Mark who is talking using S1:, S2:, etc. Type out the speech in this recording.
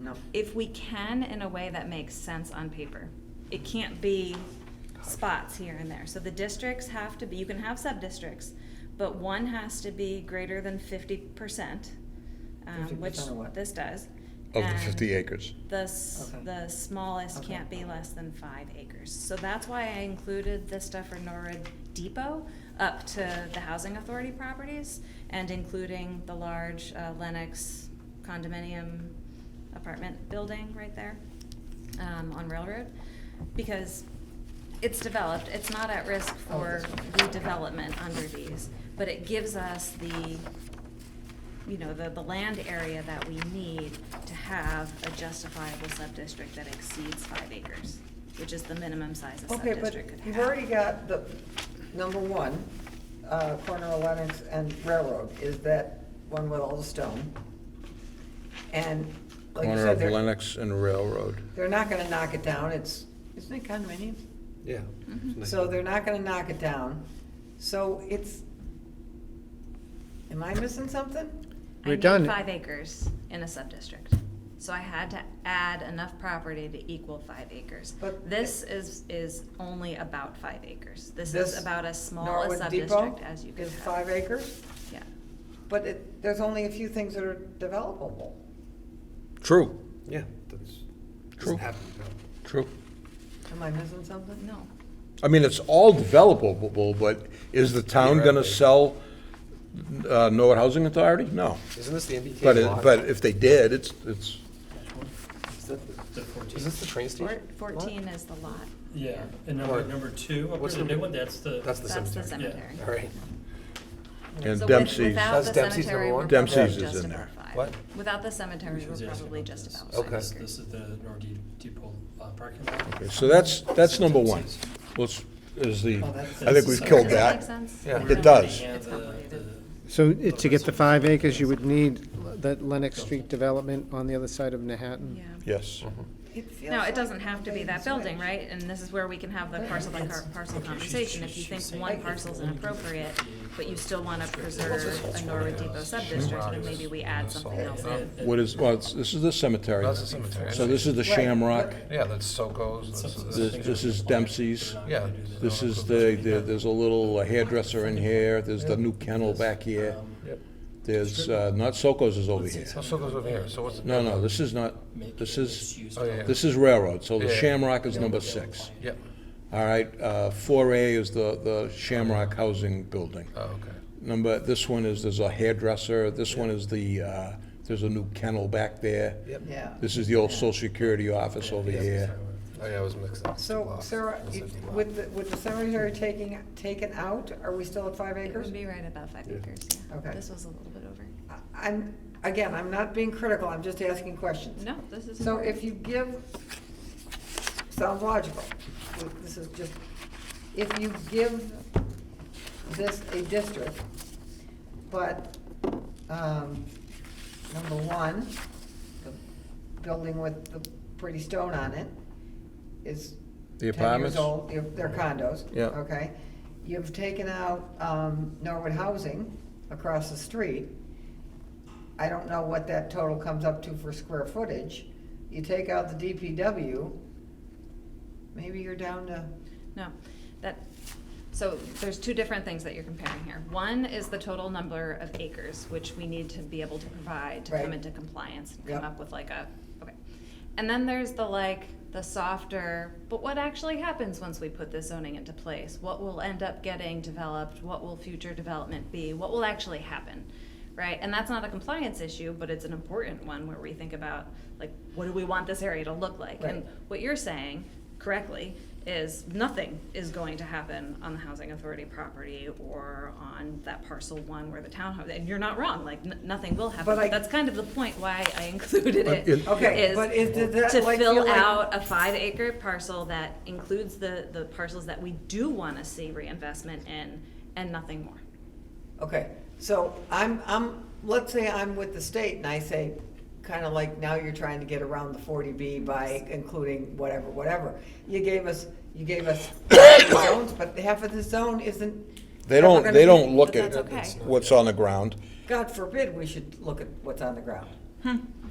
S1: No.
S2: if we can in a way that makes sense on paper. It can't be spots here and there. So the districts have to be, you can have sub-districts, but one has to be greater than fifty percent, um, which
S1: 50% of what?
S2: this does.
S3: Of the
S2: and
S3: 50 acres.
S2: The, s-
S1: Okay.
S2: the smallest
S1: Okay.
S2: can't be less than five acres. So that's why I included this stuff for Norwood Depot up to the housing authority properties and including the large uh, Lennox condominium apartment building right there um, on Railroad. Because it's developed, it's not at risk
S1: Oh,
S2: for
S1: this one.
S2: redevelopment under these, but it gives us the you know, the, the land area that we need to have a justifiable sub-district that exceeds five acres, which is the minimum size a
S1: Okay, but
S2: sub-district could have.
S1: you've already got the, number one, uh, corner of Lennox and Railroad is that one with all the stone. And like you
S3: Corner
S1: said,
S3: of
S1: they're,
S3: Lennox and Railroad.
S1: they're not gonna knock it down, it's, isn't it condominiums?
S4: Yeah.
S2: Mhm.
S1: Mm-hmm. So they're not gonna knock it down. So it's, am I missing something?
S2: I
S5: We're
S2: need
S5: done.
S2: five acres in a sub-district, so I had to add enough property to equal five acres.
S1: But-
S2: This is, is only about five acres. This
S1: This
S2: is about as small a
S1: Norwood
S2: sub-district
S1: Depot
S2: as you could
S1: Is
S2: have.
S1: five acres,
S2: Yeah.
S1: but it, there's only a few things that are developable.
S3: True,
S4: Yeah, that's,
S3: True.
S4: doesn't happen, no.
S3: true.
S1: Am I missing something?
S2: No.
S3: I mean, it's all developable, but is the town gonna
S4: Theoretically.
S3: sell uh, Norwood Housing Authority? No.
S4: Isn't this the
S3: But,
S4: MBTA
S3: it-
S4: lot?
S3: but if they did, it's, it's,
S4: Is that the- Is this the train station?
S2: Fourteen is the lot.
S6: Yeah, and number,
S4: Or-
S6: number two, up
S4: what's
S6: there, the new
S4: number-
S6: one, that's the.
S4: That's the
S2: That's the
S4: cemetery.
S2: cemetery.
S4: All right.
S3: and
S2: So with-
S3: Dempsey's.
S2: Without
S4: That's
S2: the
S4: Dempsey's
S2: cemetery,
S4: number
S2: we're
S4: one?
S2: probably
S3: Dempsey's is
S2: just
S3: in
S2: about
S3: there.
S2: five.
S4: What?
S2: Without the cemetery,
S6: She was
S2: we're
S6: asking
S2: probably
S6: about
S2: just
S6: this.
S2: about
S4: Okay.
S2: five
S6: This
S2: acres.
S6: this is the Norwood Depot uh, parking lot.
S3: Okay, So that's, that's number one.
S6: Dempsey's.
S3: Let's, is the,
S6: Oh, that's-
S3: I think we've
S6: that's-
S3: killed
S2: Does that make
S3: that.
S2: sense?
S4: Yeah.
S3: It does.
S6: And
S2: It's
S6: the-
S2: complicated.
S6: the-
S5: So it- to get the five acres, you would need that Lennox Street development on the other side of Manhattan.
S2: Yeah.
S3: Yes.
S1: Mm-hmm.
S2: No, it doesn't have to be that building,
S1: right?
S2: right? And this is where we can have the parcel by car- parcel
S6: Okay, she's-
S2: conversation. If you
S6: she's-
S2: think
S6: she's
S2: one
S6: saying-
S2: parcel's inappropriate, but you still want to preserve a Norwood Depot sub-district, then maybe we add something else in.
S6: and-
S3: What is, well, it's- this is the cemetery.
S7: That's the cemetery.
S3: So this is the
S1: Right.
S3: Shamrock,
S7: Yeah, that's Soko's,
S6: and
S7: that's,
S6: some-
S7: that's-
S3: this, this is Dempsey's.
S7: yeah.
S3: This is the, the- there's a little hairdresser in here, there's the new kennel back here,
S6: Um,
S7: Yep.
S3: there's, uh, not Soko's is over
S6: let's see
S3: here.
S7: Oh,
S6: something
S7: Soko's over here,
S6: that
S7: so what's,
S3: No, no, this is not,
S6: make
S3: this
S6: it
S3: is,
S6: mixed-use
S7: Oh, yeah.
S6: development.
S3: this is Railroad, so the
S7: Yeah.
S3: Shamrock is number six.
S7: yeah,
S3: All right, uh, four A is the, the Shamrock Housing Building.
S7: oh, okay.
S3: Number, this one is, there's a hairdresser, this one is the, uh, there's a new kennel back there.
S4: Yep.
S1: Yeah.
S3: This is the old social security office over
S4: Yeah.
S3: here.
S7: Oh, yeah, I was mixed up.
S1: So
S7: Lost.
S1: Sarah,
S7: Must
S1: it-
S7: have been
S1: with, the- with the cemetery taking, taken out, are we still at five
S2: It
S1: acres?
S2: would be right about five acres, yeah.
S1: Okay.
S2: This was a little bit over.
S1: I- I'm, again, I'm not being critical, I'm just asking questions.
S2: No, this is.
S1: So if you give, sounds logical, this is just, if you give this a district, but, um, number one, the building with the pretty stone on it is
S3: The
S1: ten years
S3: apartments?
S1: old, if they're condos.
S3: Yeah.
S1: Okay, you've taken out, um, Norwood Housing across the street, I don't know what that total comes up to for square footage. You take out the DPW, maybe you're down to,
S2: No, that, so there's two different things that you're comparing here. One is the total number of acres, which we need to be able to provide to come
S1: Right.
S2: into compliance and
S1: Yep.
S2: come up with like a, okay. And then there's the like, the softer, but what actually happens once we put this zoning into place? What will end up getting developed? What will future development be? What will actually happen? Right, and that's not a compliance issue, but it's an important one where we think about, like, what do we want this area to look like? And
S1: Right.
S2: what you're saying correctly is nothing is going to happen on the housing authority property or on that parcel one where the townhouse, and you're not wrong, like, n- nothing will happen.
S1: But I-
S2: But that's kind of the point why I included
S3: But
S2: it.
S3: it-
S1: Okay,
S2: is
S1: but is- did that,
S2: To
S1: like, feel
S2: fill
S1: like-
S2: out a five acre parcel that includes the, the parcels that we do wanna see reinvestment in and nothing more.
S1: okay, so I'm, I'm, let's say I'm with the state and I say, kinda like now you're trying to get around the forty B by including whatever, whatever. You gave us, you gave us zones, but half of the zone isn't.
S3: They
S1: ever
S3: don't,
S1: gonna
S3: they
S1: be-
S3: don't look
S2: But
S3: at
S2: that's okay.
S3: what's on the ground.
S1: God forbid we should look at what's on the ground.